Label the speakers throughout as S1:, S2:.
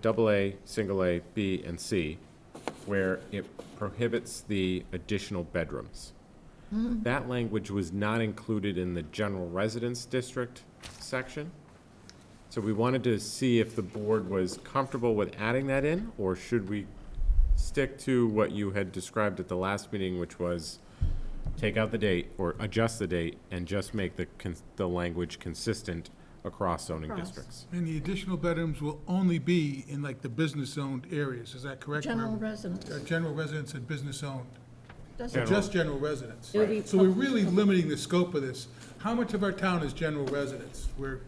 S1: double A, single A, B, and C, where it prohibits the additional bedrooms. That language was not included in the general residence district section. So we wanted to see if the board was comfortable with adding that in, or should we stick to what you had described at the last meeting, which was take out the date or adjust the date and just make the, cons- the language consistent across zoning
S2: Across.
S1: districts?
S3: And the additional bedrooms will only be in like the business-owned areas, is that correct?
S2: General
S3: Barbara?
S2: residence,
S3: Uh, General residence and business-owned,
S2: doesn't,
S3: just general residence.
S2: It would be
S3: So we're
S2: public.
S3: really limiting the scope of this. How much of our town is general residence? We're,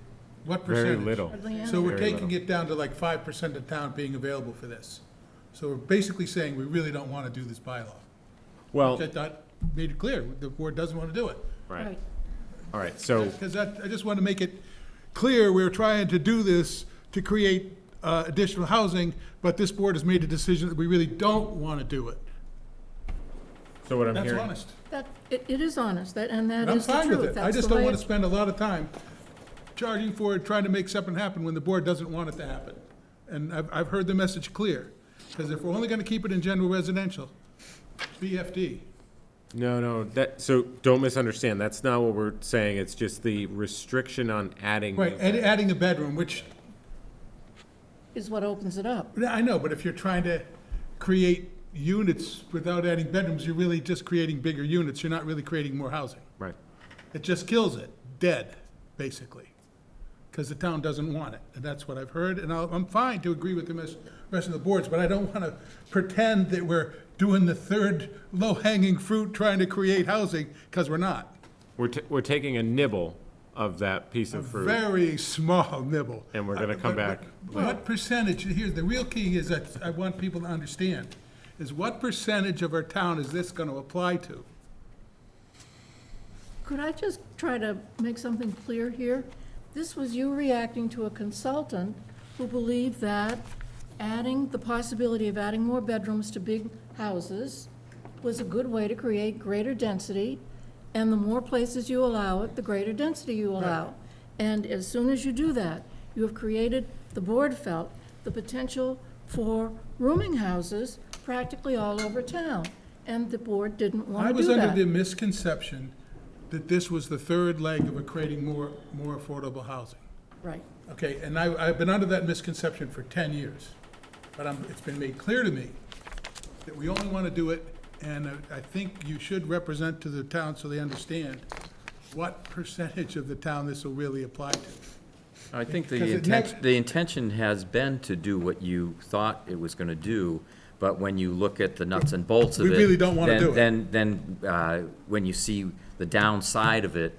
S3: what
S1: Very
S3: percentage?
S1: little.
S2: hardly any,
S3: So we're
S1: Very
S3: taking it down to like five percent of town being available for this. So we're basically saying we really don't want to do this bylaw.
S1: Well,
S3: That, that made it clear, the board doesn't want to do it.
S1: right,
S2: right,
S1: all right, so,
S3: Because that, I just want to make it clear, we're trying to do this to create uh, additional housing, but this board has made a decision that we really don't want to do it.
S1: so what I'm
S3: That's
S1: hearing,
S3: honest.
S2: that, it, it is honest, that, and that
S3: And I'm
S2: is the
S3: fine with
S2: truth,
S3: it. I
S2: that's
S3: just
S2: the
S3: don't
S2: way,
S3: want to
S2: it-
S3: spend a lot of time charging for it, trying to make something happen when the board doesn't want it to happen. And I've, I've heard the message clear, because if we're only going to keep it in general residential, BFD.
S1: no, no, that, so don't misunderstand, that's not what we're saying, it's just the restriction on adding.
S3: Right, add- adding a bedroom, which
S2: is what opens it up.
S3: Yeah, I know, but if you're trying to create units without adding bedrooms, you're really just creating bigger units, you're not really creating more housing.
S1: Right,
S3: It just kills it, dead, basically, because the town doesn't want it, and that's what I've heard, and I'll- I'm fine to agree with the mes- rest of the boards, but I don't want to pretend that we're doing the third low-hanging fruit trying to create housing, because we're not.
S1: we're, ta- we're taking a nibble of that piece of fruit.
S3: Very small nibble. Uh,
S1: And we're gonna come
S3: But-
S1: back
S3: but What percentage, here's, the real key is that I want people to understand, is what percentage of our town is this gonna apply to?
S2: Could I just try to make something clear here? This was you reacting to a consultant who believed that adding, the possibility of adding more bedrooms to big houses was a good way to create greater density, and the more places you allow it, the greater density you allow. And as soon as you do that, you have created, the board felt, the potential for rooming houses practically all over town, and the board didn't
S3: I
S2: want to
S3: was
S2: do that.
S3: under the misconception that this was the third leg of creating more, more affordable housing.
S2: Right.
S3: Okay, and I, I've been under that misconception for ten years, but i it's been made clear to me that we only wanna do it, and I- I think you should represent to the town so they understand what percentage of the town this will really apply to.
S4: I think the
S3: Because it
S4: intention,
S3: nev-
S4: the intention has been to do what you thought it was gonna do, but when you look at the nuts and bolts of
S3: We
S4: it.
S3: really don't wanna
S4: then-
S3: do it.
S4: Then, then, uh, when you see the downside of it,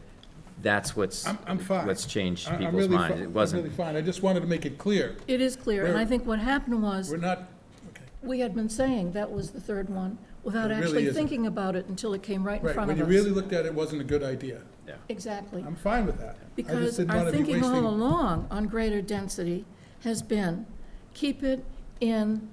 S4: that's what's.
S3: I'm, I'm fine.
S4: What's changed
S3: I- I'm
S4: people's
S3: really
S4: minds.
S3: fi-
S4: It
S3: I'm really
S4: wasn't,
S3: fine, I just wanted to make it clear,
S2: It is clear, and I
S3: We're-
S2: think what happened was,
S3: we're not, okay,
S2: we had been saying that was the third one, without
S3: It really
S2: actually
S3: isn't.
S2: thinking about it until it came right in
S3: right,
S2: front
S3: when
S2: of
S3: you
S2: us.
S3: really looked at it, it wasn't a good idea.
S2: Exactly.
S3: I'm fine with that. I just
S2: Because
S3: didn't
S2: our
S3: want to be
S2: thinking all
S3: wasting.
S2: along on greater density has been, keep it in,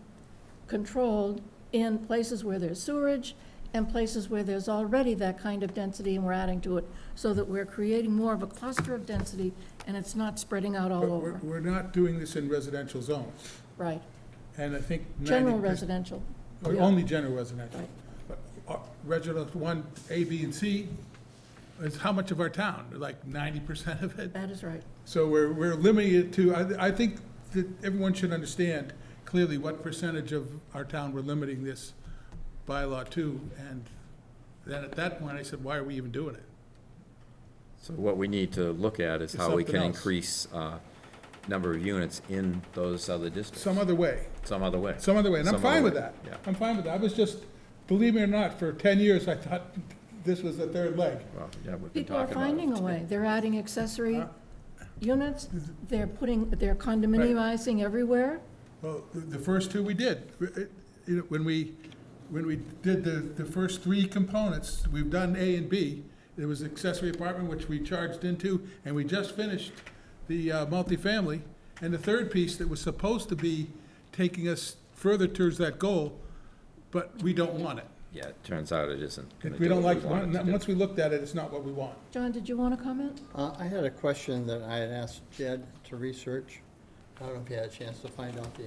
S2: controlled, in places where there's sewerage and places where there's already that kind of density and we're adding to it, so that we're creating more of a cluster of density and it's not spreading out all
S3: But we're,
S2: over.
S3: we're not doing this in residential zones,
S2: Right.
S3: and I think
S2: General
S3: ninety percent.
S2: residential.
S3: Or
S2: Yeah.
S3: Only general residential.
S2: Right.
S3: But, uh, Residential one, A, B, and C is how much of our town? Like ninety percent of it?
S2: That is right.
S3: So we're, we're limiting it to, I, I think that everyone should understand clearly what percentage of our town we're limiting this bylaw to. And then at that point, I said, why are we even doing it?
S4: so what we need to look at is
S3: It's
S4: how we
S3: something
S4: can
S3: else.
S4: increase, uh, number of units in those other districts,
S3: Some other way,
S4: some other way.
S3: some other way, and I'm
S4: Some other
S3: fine with
S4: way,
S3: that.
S4: yeah.
S3: I'm fine with that. I was just, believe me or not, for ten years, I thought this was the third leg.
S4: Well, yeah, we've been
S2: People are
S4: talking about it.
S2: finding a way. They're adding accessory
S3: Huh?
S2: units, they're putting, they're condominiumizing everywhere.
S3: Well, the- the first two we did. It- it- When we, when we did the, the first three components, we've done A and B. There was accessory apartment, which we charged into, and we just finished the uh, multifamily. And the third piece that was supposed to be taking us further towards that goal, but we don't want it.
S4: Yeah, it turns out it isn't. gonna
S3: If we
S4: do
S3: don't
S4: what
S3: like,
S4: we want it to do.
S3: once we looked at it, it's not what we want.
S2: John, did you want to comment?
S5: Uh, I had a question that I had asked Jed to research. I don't know if you had a chance to find out the